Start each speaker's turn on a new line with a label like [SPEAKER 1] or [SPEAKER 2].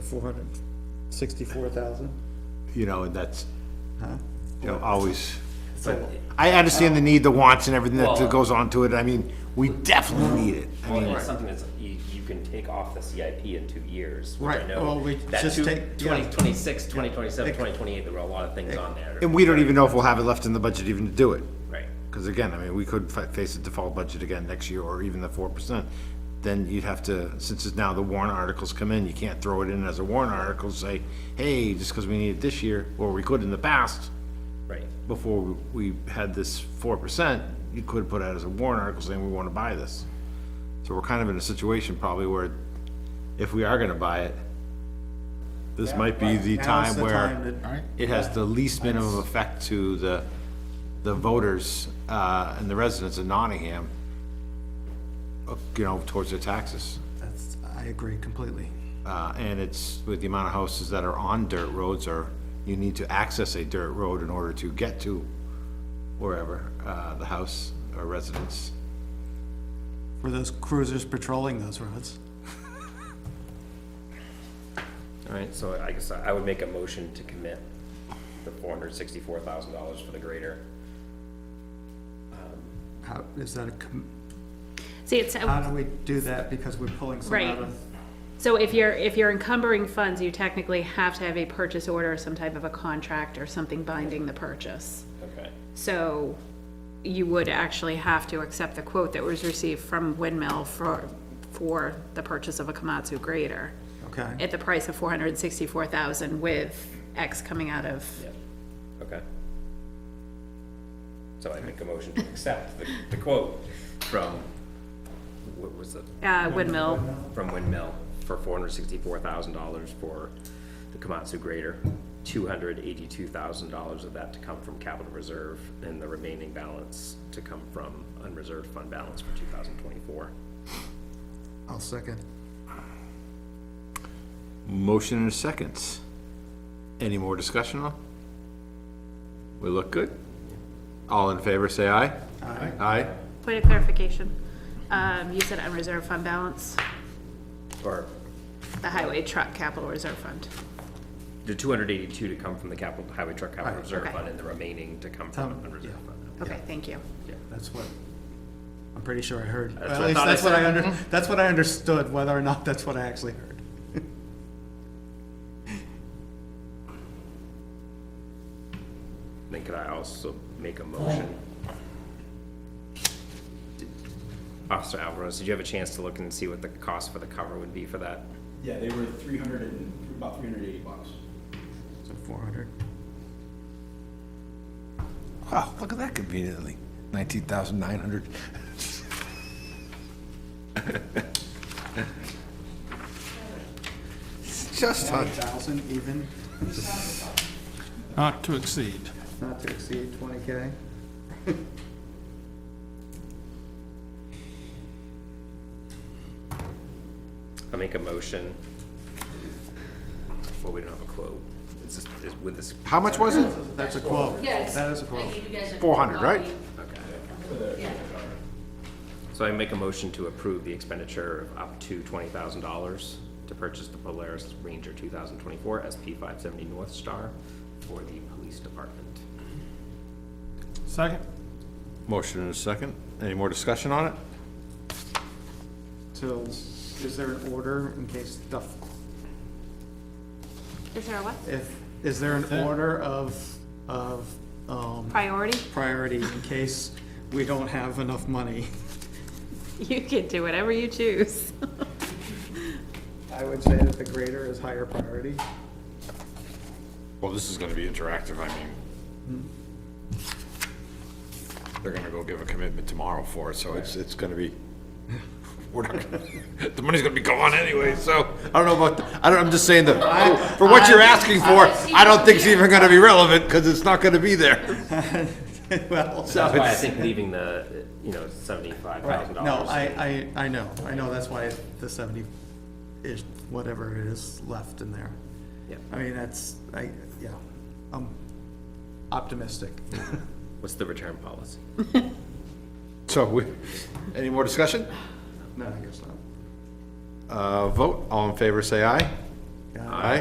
[SPEAKER 1] Four hundred sixty-four thousand?
[SPEAKER 2] you know, and that's,
[SPEAKER 1] Huh?
[SPEAKER 2] you know, always,
[SPEAKER 1] So,
[SPEAKER 2] I understand the need, the wants and everything
[SPEAKER 3] Well-
[SPEAKER 2] that goes on to it, I mean, we definitely need it. I
[SPEAKER 3] Well, and
[SPEAKER 2] mean,
[SPEAKER 3] it's something that's, you, you can take off the CIP in two years, which I
[SPEAKER 1] Right, well,
[SPEAKER 3] know,
[SPEAKER 1] we
[SPEAKER 3] that
[SPEAKER 1] just
[SPEAKER 3] two,
[SPEAKER 1] take- yeah.
[SPEAKER 3] twenty twenty-six, twenty twenty-seven,
[SPEAKER 1] Ex-
[SPEAKER 3] twenty twenty-eight, there were a lot of things on there.
[SPEAKER 2] And we don't even know if we'll have it left in the budget even to do it,
[SPEAKER 3] Right,
[SPEAKER 2] because again, I mean, we could fa- face a default budget again next year, or even the four percent. Then you'd have to, since it's now the warrant articles come in, you can't throw it in as a warrant article, say, hey, just because we need it this year, or we could in the past,
[SPEAKER 3] right,
[SPEAKER 2] before we had this four percent, you could have put out as a warrant article saying we wanna buy this. So we're kind of in a situation probably where if we are gonna buy it, this might be the
[SPEAKER 1] Now's
[SPEAKER 2] time
[SPEAKER 1] the time
[SPEAKER 2] where
[SPEAKER 1] to- Alright.
[SPEAKER 2] it has the least minimum effect to the, the voters, uh, and the residents of Nottingham, uh, you know, towards their taxes.
[SPEAKER 1] that's, I agree completely.
[SPEAKER 2] Uh, and it's with the amount of houses that are on dirt roads or you need to access a dirt road in order to get to wherever, uh, the house or residence.
[SPEAKER 1] Were those cruisers patrolling those roads?
[SPEAKER 3] alright, so I guess I would make a motion to commit the four hundred sixty-four thousand dollars for the grader.
[SPEAKER 1] How, is that a, com-
[SPEAKER 4] See, it's, uh,
[SPEAKER 1] how do we do that because we're pulling some out
[SPEAKER 4] Right.
[SPEAKER 1] of?
[SPEAKER 4] so if you're, if you're encumbering funds, you technically have to have a purchase order, some type of a contract or something binding the purchase.
[SPEAKER 3] Okay.
[SPEAKER 4] So you would actually have to accept the quote that was received from Windmill for, for the purchase of a Komatsu grader
[SPEAKER 1] Okay,
[SPEAKER 4] at the price of four hundred and sixty-four thousand with X coming out of,
[SPEAKER 3] Yeah, okay. So I make a motion to accept the, the quote from, what was it?
[SPEAKER 4] uh, Windmill.
[SPEAKER 3] from Windmill for four hundred sixty-four thousand dollars for the Komatsu grader. Two hundred eighty-two thousand dollars of that to come from capital reserve and the remaining balance to come from unreserved fund balance for two thousand twenty-four.
[SPEAKER 1] I'll second.
[SPEAKER 2] Motion and a second. Any more discussion on? We look good? All in favor, say aye. Aye. Aye?
[SPEAKER 4] Point of clarification, um, you said unreserved fund balance,
[SPEAKER 3] Or
[SPEAKER 4] the highway truck capital reserve fund.
[SPEAKER 3] the two hundred eighty-two to come from the capital, highway truck capital
[SPEAKER 1] Right,
[SPEAKER 3] reserve
[SPEAKER 4] okay.
[SPEAKER 3] fund and the remaining to come
[SPEAKER 1] Tom,
[SPEAKER 3] from unreserved fund.
[SPEAKER 4] Okay, thank you.
[SPEAKER 1] That's what, I'm pretty sure I heard.
[SPEAKER 3] That's
[SPEAKER 1] At
[SPEAKER 3] what I
[SPEAKER 1] least
[SPEAKER 3] thought I
[SPEAKER 1] that's what I
[SPEAKER 3] said.
[SPEAKER 1] under, that's what I understood, whether or not that's what I actually heard.
[SPEAKER 3] Then could I also make a motion? Officer Alvarez, did you have a chance to look and see what the cost for the cover would be for that?
[SPEAKER 5] Yeah, they were three hundred and, about three hundred and eighty bucks.
[SPEAKER 1] So four hundred.
[SPEAKER 2] Wow, look at that conveniently. Nineteen thousand nine hundred. Just
[SPEAKER 1] Twenty thousand even,
[SPEAKER 6] Not to exceed.
[SPEAKER 1] not to exceed twenty K.
[SPEAKER 3] I make a motion. Well, we don't have a quote. It's just, it's with this,
[SPEAKER 2] How much was it?
[SPEAKER 1] That's a quote.
[SPEAKER 7] Yes.
[SPEAKER 1] That is a quote.
[SPEAKER 2] 400, right?
[SPEAKER 3] okay.
[SPEAKER 7] Yeah.
[SPEAKER 3] So I make a motion to approve the expenditure of up to twenty thousand dollars to purchase the Polaris Ranger two thousand twenty-four SP five seventy North Star for the police department.
[SPEAKER 6] Second?
[SPEAKER 2] Motion and a second. Any more discussion on it?
[SPEAKER 1] So is there an order in case stuff,
[SPEAKER 4] Is there a what?
[SPEAKER 1] if, is there an order of, of, um,
[SPEAKER 4] Priority?
[SPEAKER 1] priority in case we don't have enough money?
[SPEAKER 4] You can do whatever you choose.
[SPEAKER 1] I would say that the grader is higher priority.
[SPEAKER 2] Well, this is gonna be interactive, I mean. They're gonna go give a commitment tomorrow for it, so it's, it's gonna be, we're not, gonna- the money's gonna be gone anyway, so, I don't know about, I don't, I'm just saying that, for what you're asking for, I don't think it's even gonna be relevant, cause it's not gonna be there.
[SPEAKER 1] Well,
[SPEAKER 3] That's why I think leaving the, you know, seventy-five
[SPEAKER 1] right,
[SPEAKER 3] thousand
[SPEAKER 1] no,
[SPEAKER 3] dollars.
[SPEAKER 1] I, I, I know, I know, that's why the seventy is, whatever it is left in there.
[SPEAKER 3] Yep.
[SPEAKER 1] I mean, that's, I, yeah, I'm optimistic.
[SPEAKER 3] What's the return policy?
[SPEAKER 2] So, we, any more discussion?
[SPEAKER 1] No, I guess not.
[SPEAKER 2] Uh, vote, all in favor, say aye.
[SPEAKER 1] Got it.
[SPEAKER 2] Aye.